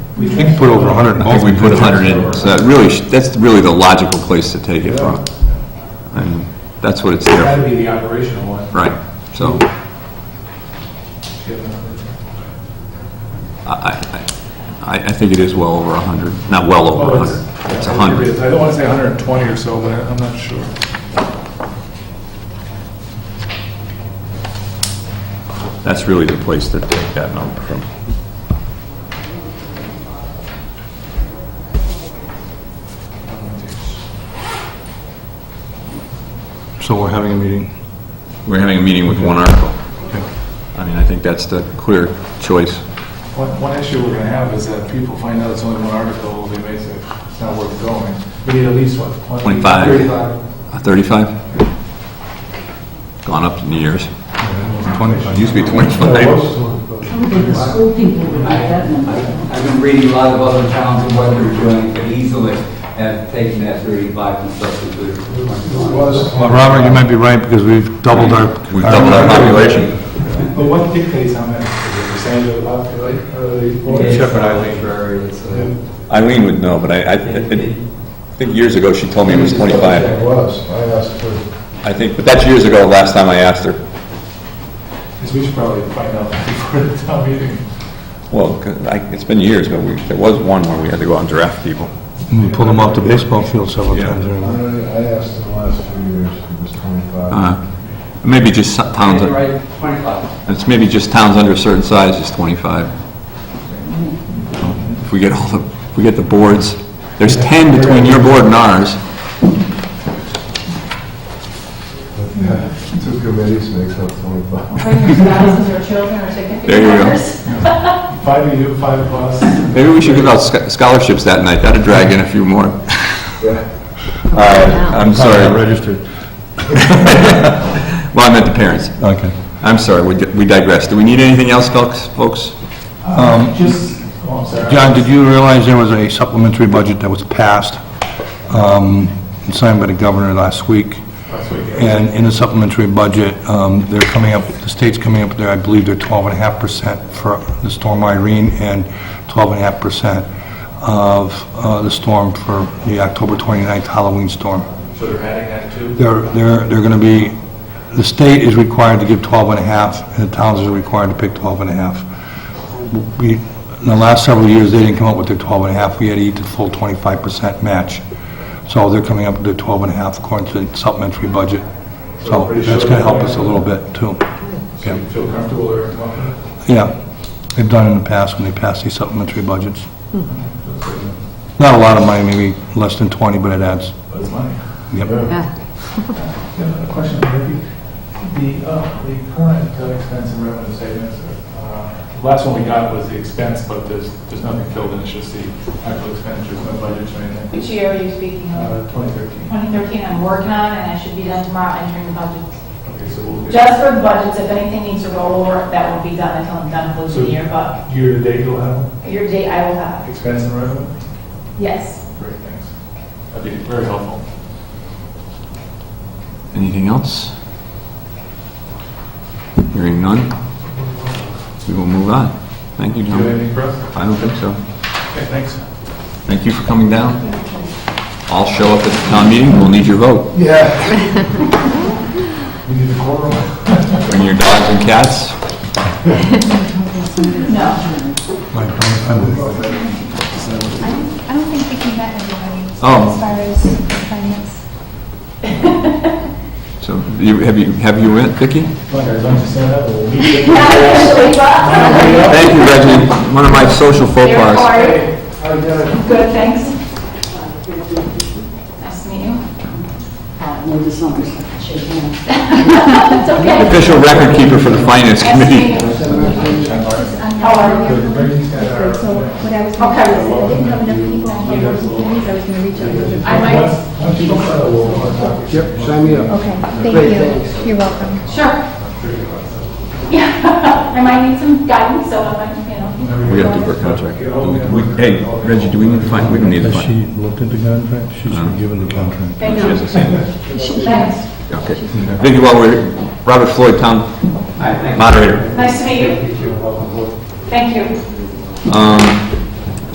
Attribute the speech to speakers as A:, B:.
A: We can't put over 100 in.
B: I think Oh, we put 100 in, so that really, sh- that's really the logical place to take it from. And that's what it's there,
A: That'd be the operational one.
B: for. right? So I, I, I- I think it is well over 100, not well over 100, it's 100.
C: I don't want to say 120 or so, but I'm not sure.
B: That's really the place to take that number from.
C: So we're having a meeting.
B: We're having a meeting with one article. I mean, I think that's the clear choice.
C: One, one issue we're going to have is that people find out it's only one article, they may say, it's not worth going.
A: We need at least what? 20,
B: 25.
A: 35.
B: Uh, 35? Gone up in the years. It used to be 25.
D: The school people would like that number.
E: I've been reading a lot of other towns and what they're doing, could easily have taken that 35 and substituted it for 21.
A: Well,
C: Well,
A: Robert, you might
C: be right, because we've
A: doubled our-
B: We've doubled our population.
C: But what dictates how many? The percentage of the population, or the...
E: It's
C: Shepherd
E: arbitrary, it's, uh,
B: Eileen would know, but I, I I think years ago, she told me it was 25.
C: was, I asked for...
B: I think, but that's years ago, last time I asked her.
C: Because we should probably find out before the town meeting.
B: Well, 'cause I- it's been years, but we, there was one where we had to go out and draft people.
F: We pulled them off the baseball field several
B: Yeah.
F: times. during
G: I
F: the-
G: I asked in the last few years, it was 25.
B: Uh, Maybe just so- towns,
E: you're right, 25.
B: it's maybe just towns under a certain size is 25. If we get all the, if we get the boards, there's 10 between your board and ours.
G: Two committees makes up 25.
D: Bring your spouses or children or
B: There
D: significant
B: you go.
D: others.
C: Five of you, five of us.
B: Maybe we should give out scho- scholarships that night, that'd drag in a few more. All right, I'm
F: Not
B: sorry.
F: Registered.
B: Well, I meant the parents.
F: Okay.
B: I'm sorry, we di- we digress. Do we need anything else, folks? folks?
C: Just, oh, I'm sorry.
F: John, did you realize there was a supplementary budget that was passed, um, and signed by the governor last week?
C: Last week, yeah.
F: And in the supplementary budget, um, they're coming up, the state's coming up with their, I believe they're 12.5% for the storm Irene and 12.5% of uh, the storm for the October 29th Halloween storm.
C: So they're adding that too?
F: They're, they're, they're going to be, the state is required to give 12 and a half, and the towns are required to pick 12 and a half. We, in the last several years, they didn't come up with their 12 and a half, we had to eat the full 25% match. So they're coming up with their 12 and a half according to the supplementary budget. So that's going to help us a little bit, too.
C: So you feel comfortable or confident?
F: Yeah, they've done in the past when they passed these supplementary budgets. Not a lot of money, maybe less than 20, but it adds.
C: That's money.
F: Yep.
C: Another question, maybe, the, uh, the current uh, expense and revenue statements, uh, the last one we got was the expense, but there's, there's nothing filled in, it's just the actual expenditures, no budgets or anything.
D: Which year are you speaking of?
C: Uh, 2013.
D: 2013, I'm working on, and I should be done tomorrow entering the budgets.
C: Okay, so we'll get,
D: Just for the budgets, if anything needs to roll over, that will be done until I'm done with the year, but
C: year-to-date you'll have
D: your date I will have.
C: expense and revenue?
D: Yes.
C: Great, thanks. That'd be very helpful.
B: Anything else? Hearing none, we will move on. Thank you,
C: Do you have
B: John.
C: anything for us?
B: I don't think so.
C: Okay, thanks.
B: Thank you for coming down. I'll show up at the town meeting, we'll need your vote.
C: Yeah. We need a quorum.
B: Bring your dogs and cats.
D: No.
F: Like, I'm- I'm-
H: I don't think Vicki met everybody as
B: Oh.
H: far as finance.
B: So, you- have you, have you went, Vicki?
C: Come on, guys, why don't you stand up and we'll meet you.
D: Not officially, but
B: Thank you, Reggie, one of my social faux
D: they're
B: pas.
D: hard. Good, thanks. Nice to meet you. Uh,
I: No, this not shake hands.
D: It's okay.
B: Official record keeper for the finance
D: Nice to
B: committee.
D: meet you.
H: How
D: How are you?
H: um, So what I was going to
D: Okay.
H: say is if I didn't have enough people on the meetings, I was going to reach out to the...
D: I might,
G: Yep, sign me up.
H: Okay, thank you. You're welcome.
D: sure. Yeah, I might need some guidance, so I might, you know.
B: We gotta do her contract. We- Hey, Reggie, do we need to find, we don't need to
F: Has
B: find.
F: she looked at the contract? She's been given the contract.
D: Thank
B: She has
D: you.
B: the same.
D: Thanks.
B: Okay. Vicki, while we're, Robert Floyd, town moderator.
D: Nice to meet you. Thank you.
B: Um,